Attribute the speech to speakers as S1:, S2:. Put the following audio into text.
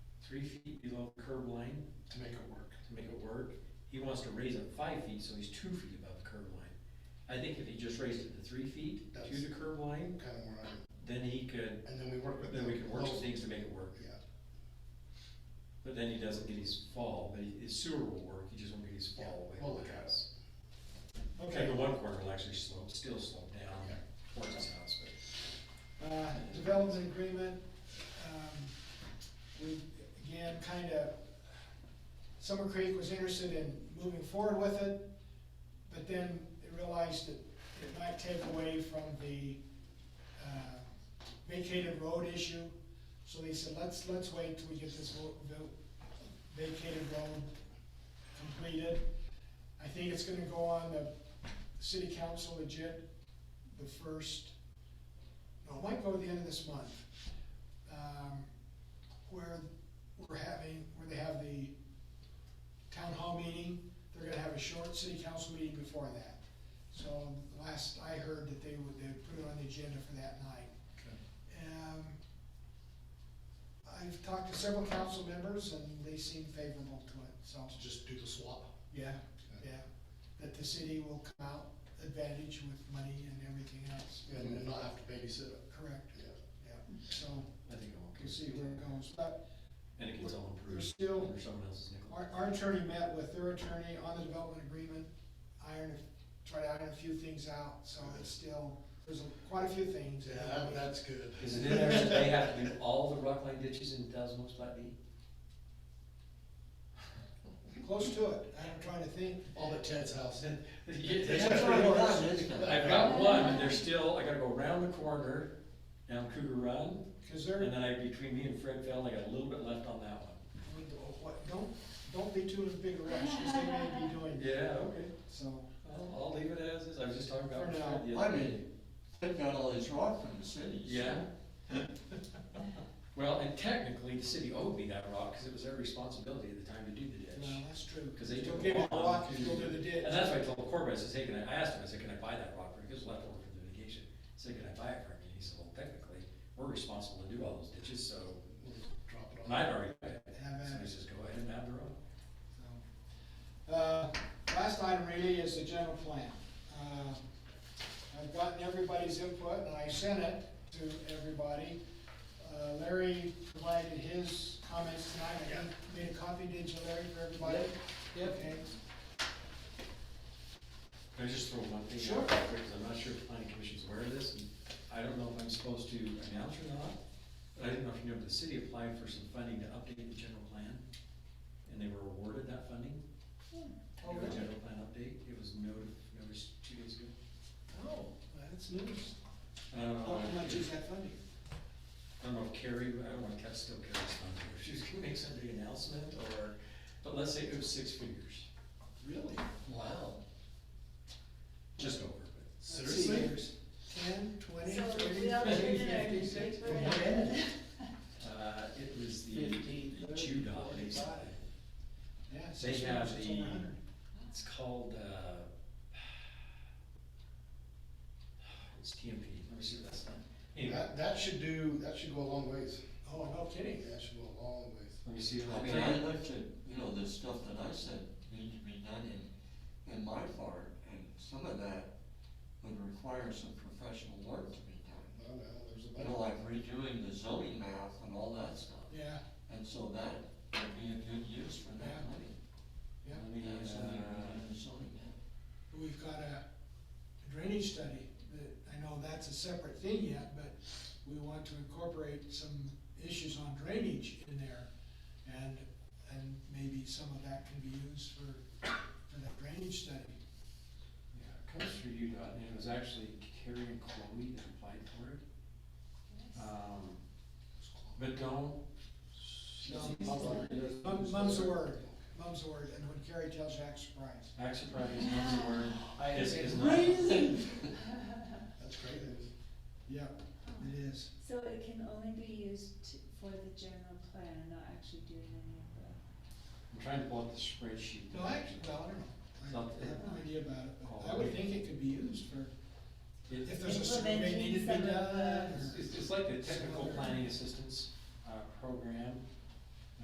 S1: three feet below curb line
S2: to make it work.
S1: to make it work. He wants to raise it five feet, so he's two feet above the curb line. I think if he just raised it to three feet to
S2: That's-
S1: the curb line,
S2: Kind of where I'm,
S1: then he could,
S2: and then we work with them.
S1: then we could work some
S2: close-
S1: things to make it work.
S2: Yeah,
S1: But then he doesn't get his fall, but his sewer will work, he just won't get his
S2: yeah,
S1: fall away.
S2: we'll look at it.
S1: Okay, the one corner will actually slope, still slope down
S2: Okay.
S1: towards his house, but.
S3: Uh, development agreement, um, we, again, kinda, Summer Creek was interested in moving forward with it, but then they realized that it might take away from the, uh, vacated road issue. So they said, let's, let's wait till we get this vo- vo- vacated road completed. I think it's gonna go on the city council legit the first no, it might go to the end of this month, um, where we're having, where they have the town hall meeting, they're gonna have a short city council meeting before that. So last I heard that they would, they'd put it on the agenda for that night. Um, I've talked to several council members and they seem favorable to it, so,
S2: Let's Just do the swap.
S3: yeah, yeah. That the city will come out advantage with money and everything else,
S2: And then not have to babysit it,
S3: correct,
S2: yeah.
S3: yeah, so.
S1: I think it'll
S3: We'll see where it goes, but
S1: And it gets all
S3: we're
S1: improved
S3: still,
S1: under someone else's nickel.
S3: our, our attorney met with their attorney on the development agreement, ironed, a- tried to iron a few things out, so it's still, there's a- quite a few things.
S2: Yeah, that, that's good.
S1: Is it in there that they have to do all the rock line ditches in Desmos Flat B?
S3: Close to it, I'm trying to think.
S2: All but Ted's house.
S1: It's
S3: that's
S1: pretty
S3: what it
S1: rough,
S3: was.
S1: isn't it? I've got one, and there's still, I gotta go around the corner, down Cougar Run,
S3: Cause
S1: and
S3: they're,
S1: then I, between me and Fred Feld, I got a little bit left on that one.
S3: we do- what- don't, don't be too in a big rush, cause they may be doing it,
S1: Yeah, okay,
S3: so.
S1: I'll, I'll leave it as is, I was just talking about.
S3: For
S1: Fred the
S3: now.
S4: I
S1: other day.
S4: mean, they've got all these rock from the cities.
S1: Yeah. Well, and technically, the city owed me that rock, cause it was their responsibility at the time to do the ditch.
S3: Well, that's true.
S1: Because they
S3: Don't
S1: took
S3: give
S1: a
S3: it a
S1: while
S3: rock,
S1: to-
S3: you go to the ditch.
S1: And that's why I told Corbin, I says, hey, can I, I asked him, I said, can I buy that rock? He was left over from the vacation. I said, can I buy it from you? And he said, well, technically, we're responsible to do all those ditches, so,
S2: We'll Drop it
S1: and
S2: off.
S1: I'd already, bought it.
S3: Have
S1: so
S3: at
S1: he
S3: it.
S1: says, go ahead and have the road.
S3: So, Uh, last item really is the general plan. Uh, I've gotten everybody's input and I sent it to everybody. Uh, Larry provided his comments tonight, I made a copy, did you Larry, for everybody? Yep. Okay,
S1: Can I just throw one thing
S3: Sure.
S1: out real quick, 'Cause I'm not sure if the planning commission's aware of this, and I don't know if I'm supposed to announce or not, but I didn't know if you know, the city applied for some funding to update the general plan, and they were awarded that funding.
S3: Oh,
S1: Do a
S3: really?
S1: General plan update, it was noted, noticed two days ago.
S3: oh, that's news.
S1: I don't
S3: How
S1: know if-
S3: much is that funding?
S1: I don't know if Carrie, I don't want to cut still Carrie's number, if she's gonna make some big announcement or, but let's say it was six figures,
S3: Really?
S2: Wow.
S1: just over, but.
S2: Seriously?
S3: Ten, twenty,
S5: So
S3: thirty,
S5: we all
S3: forty,
S5: did it,
S3: fifty,
S5: we
S3: sixty?
S5: were in.
S1: Uh, it was the
S4: Fifteen,
S1: the
S4: thirty,
S1: Judah,
S4: forty-five.
S1: basically.
S3: Yeah,
S1: They
S3: six
S1: have
S3: figures, it's
S1: the,
S3: over a hundred.
S1: it's called, uh, it's TMP, let me see what that's on. Anyway,
S2: That, that should do, that should go a long ways.
S3: Oh, no kidding.
S2: That should go a long ways.
S1: let me see
S4: I
S1: what
S4: mean, I
S1: that,
S4: looked at, you know, the stuff that I said needed to be done in, in my part, and some of that would require some professional work to be done.
S2: No, no, there's a
S4: You know,
S2: bunch.
S4: like redoing the zoning map and all that stuff.
S3: Yeah,
S4: And so that would be a good use for that money.
S3: yeah.
S1: let me,
S4: Have somebody redo
S1: uh,
S4: the zoning map.
S3: We've got a drainage study that, I know that's a separate thing yet, but we want to incorporate some issues on drainage in there. And, and maybe some of that can be used for, for that drainage study.
S1: yeah, it comes through Udot, and it was actually Carrie and Chloe that applied for it. Um, but don't.
S3: Um, Mum- Mum's the word, mum's the word, and when Carrie tells you, act surprised.
S1: Act surprise is not the word.
S4: I
S1: This
S4: agree.
S1: is not.
S2: That's great news.
S3: Yep, it is.
S5: So it can only be used to- for the general plan, not actually doing any of the.
S1: I'm trying to pull up the spreadsheet.
S3: No, actually, well, I don't know. I have no idea about it, but I would think it could be used for,
S1: It-
S3: if there's a survey
S5: Implementing
S3: needed to
S5: some
S3: be
S5: of
S3: done.
S5: the-
S3: or-
S1: It's, it's like the technical planning assistance, uh, program,